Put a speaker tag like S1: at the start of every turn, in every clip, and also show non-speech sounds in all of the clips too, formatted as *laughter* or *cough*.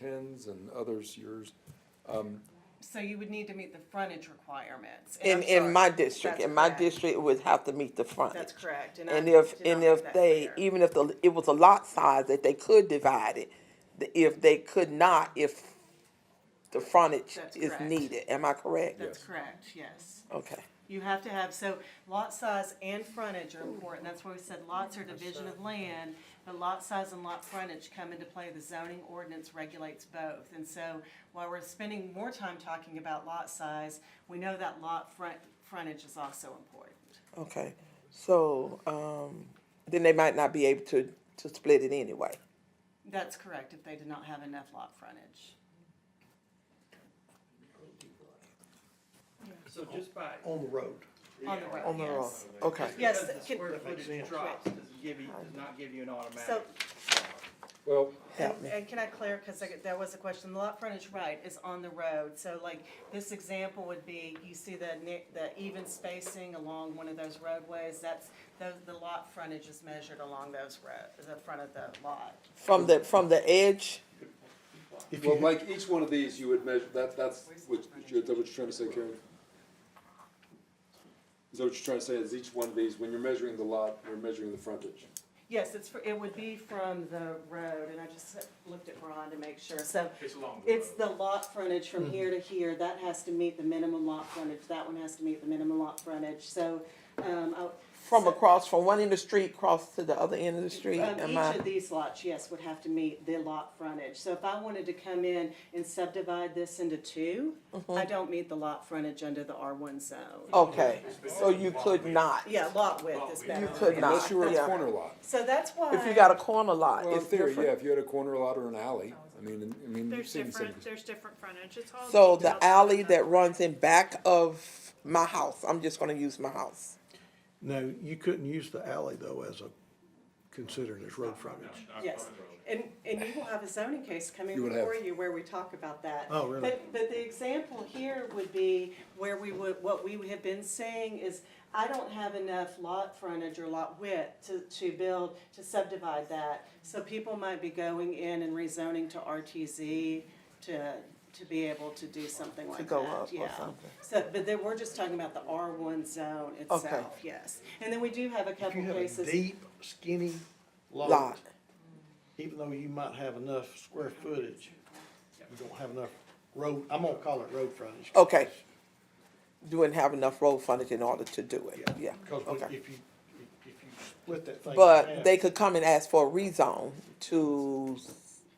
S1: Ken's and others, yours.
S2: So you would need to meet the frontage requirements.
S3: In,
S2: I'm sorry.
S3: in my district,
S4: That's
S3: in my
S4: correct.
S3: district, it would have to meet the front.
S4: That's correct. I
S3: And if,
S4: did not
S3: and
S4: make
S3: if
S4: that
S3: they,
S4: clear.
S3: even if the, it was a lot size that they could divide it, the- if they could not, if the frontage
S2: That's
S3: is
S2: correct.
S3: needed, am I correct?
S2: That's
S1: Yes.
S2: correct, yes.
S3: Okay,
S2: You have to have, so lot size and frontage are important, that's why we said lots are division of land, but lot size and lot frontage come into play, the zoning ordinance regulates both. And so while we're spending more time talking about lot size, we know that lot front, frontage is also important.
S3: okay, so, um, then they might not be able to, to split it anyway.
S2: That's correct, if they did not have enough lot frontage.
S5: So just by.
S6: on the road.
S2: On the road,
S3: On the road,
S2: yes.
S3: okay,
S2: Yes,
S5: Because the
S2: can-
S5: Square footage drops, doesn't give you, does not give you an
S2: So,
S5: automatic.
S1: Well,
S2: and,
S3: help me.
S2: and can I clarify, cause I get- that was a question, the lot frontage right is on the road, so like, this example would be, you see the ni- the even spacing along one of those roadways, that's, those, the lot frontage is measured along those road, the front of the lot.
S3: From the, from the edge,
S6: If
S1: well,
S6: you,
S1: like each one of these, you would measure, that, that's what, you're- that's what you're trying to say, Karen? Is that what you're trying to say, is each one of these, when you're measuring the lot, you're measuring the frontage?
S2: Yes, it's, fr- it would be from the road, and I just looked at Ron to make sure, so
S5: It's along
S2: It's the lot frontage from
S3: Mm-hmm.
S2: here to here, that has to meet the minimum lot frontage, that one has to meet the minimum lot frontage, so, um, I.
S3: from
S2: so,
S3: across, from one end of the street, cross to the other end of the street,
S2: um,
S3: am
S2: Each
S3: I,
S2: of these lots, yes, would have to meet the lot frontage, so if I wanted to come in and subdivide this into two,
S3: Mm-hmm.
S2: I don't meet the lot frontage under the R one zone.
S3: okay, so you could not,
S2: Yeah, lot width is better.
S3: you could
S1: Unless
S3: not,
S1: you were a
S3: yeah.
S1: corner lot.
S2: So that's why.
S3: If you got a corner lot,
S1: Well, in
S3: it's
S1: theory, yeah,
S3: different.
S1: if you had a corner lot or an alley, I mean, and- I mean, you've
S7: There's
S1: seen some.
S7: different, there's different frontage, it's all.
S3: So
S7: detailed
S3: the alley
S7: stuff.
S3: that runs in back of my house, I'm just gonna use my house.
S6: no, you couldn't use the alley though as a, considered as road frontage.
S2: Yes, and, and you will have a zoning case coming
S1: You will have.
S2: before you where we talk about that.
S6: Oh, really?
S2: But, but the example here would be where we would, what we have been saying is, I don't have enough lot frontage or lot width to, to build, to subdivide that. So people might be going in and rezoning to RTZ to, to be able to do something like that,
S3: go up or
S2: yeah.
S3: something.
S2: So, but then we're just talking about the R one zone itself, yes. And then we do have a
S6: If you
S2: couple
S6: have a
S2: cases.
S6: deep, skinny lot,
S3: Lot.
S6: even though you might have enough square footage, you don't have enough road, I'm gonna call it road frontage.
S3: Okay. You wouldn't have enough road frontage in order to do it, yeah,
S6: Cause when-
S3: okay.
S6: if you, if you split that thing. in
S3: But
S6: half,
S3: they could come and ask for a rezone to,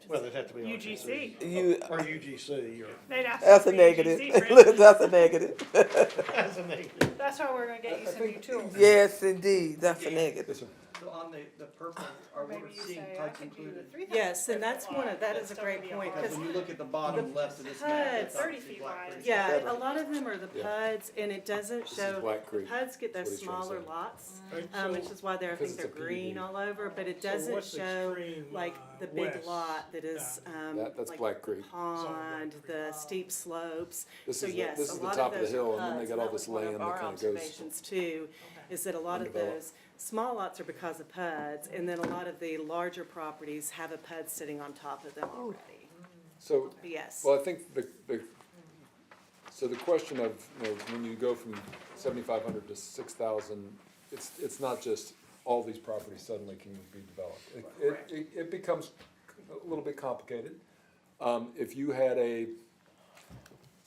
S6: Well, it'd have to be.
S7: UGC.
S6: RTC.
S3: You-
S6: Or UGC or. *laughs*
S7: They'd ask
S3: that's
S7: for
S3: a
S7: the
S3: negative, *laughs*
S7: UGC grant.
S3: that's a negative.
S6: That's a negative.
S7: That's why we're gonna get you some new tools.
S3: Yes, indeed, that's a negative.
S5: So on the, the purple, are we
S7: Maybe you
S5: seeing
S7: say, I
S5: HUDs
S7: can do
S5: included?
S7: the three thousand.
S2: Yes, and that's one of, that is a great point,
S5: Because
S2: cause
S5: when you look at the bottom left of this map, it's
S2: HUDs,
S5: obviously
S7: 30
S5: black.
S7: feet wide.
S2: Yeah,
S1: Better.
S2: a lot of them are the
S1: Yeah.
S2: PUDs, and it doesn't
S1: This is
S2: show,
S1: Black Creek.
S2: PUDs get
S1: That's what
S2: those
S1: he's trying to
S2: smaller
S1: say.
S2: lots,
S6: Right,
S2: um, which
S6: so-
S2: is why they're, I
S1: Because
S2: think
S1: it's
S2: they're
S1: a PUD.
S2: green all over, but it doesn't
S8: what's
S2: show,
S8: extreme,
S2: like,
S8: uh,
S2: the big
S8: west?
S2: lot that is, um,
S1: That- that's
S2: like
S1: Black Creek.
S2: pond, the steep slopes.
S1: This
S2: So
S1: is the-
S2: yes,
S1: this
S2: a
S1: is the
S2: lot
S1: top of the
S2: those are
S1: hill, and then they
S2: PUDs,
S1: got all
S2: that was
S1: this
S2: one of
S1: land that
S2: our
S1: kinda goes-
S2: observations too, is that a lot of
S1: Undeveloped.
S2: those small lots are because of PUDs, and then a lot of the larger properties have a PUD sitting on top of them
S8: Oh.
S2: already,
S1: So,
S2: But yes.
S1: well, I think the, the, so the question of, you know, when you go from seventy-five hundred to six thousand, it's, it's not just all these properties suddenly can be developed. It- It, it, it becomes a little bit complicated. Um, if you had a,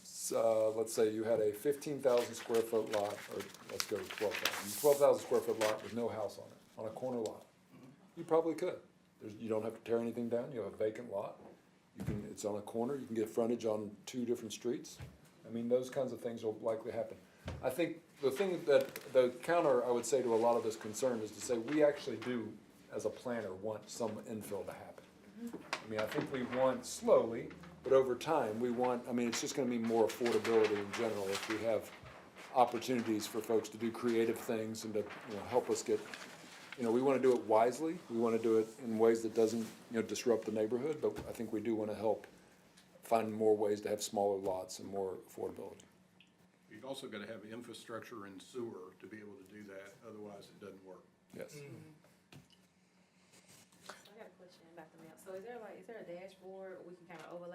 S1: s- uh, let's say you had a fifteen thousand square foot lot, or let's go twelve thousand, twelve thousand square foot lot with no house on it, on a corner lot. You probably could. There's, you don't have to tear anything down, you have a vacant lot. You can, it's on a corner, you can get frontage on two different streets. I mean, those kinds of things will likely happen. I think the thing that, the counter, I would say to a lot of this concern is to say, we actually do, as a planner, want some infill to happen. I mean, I think we want slowly, but over time, we want, I mean, it's just gonna mean more affordability in general if we have opportunities for folks to do creative things and to, you know, help us get, you know, we wanna do it wisely, we wanna do it in ways that doesn't, you know, disrupt the neighborhood, but I think we do wanna help find more ways to have smaller lots and more affordability.
S9: You've also got to have infrastructure and sewer to be able to do that, otherwise it doesn't work.
S1: Yes.
S7: I got a question.
S4: about the map, so is there like, is there a dashboard we can kind of overlay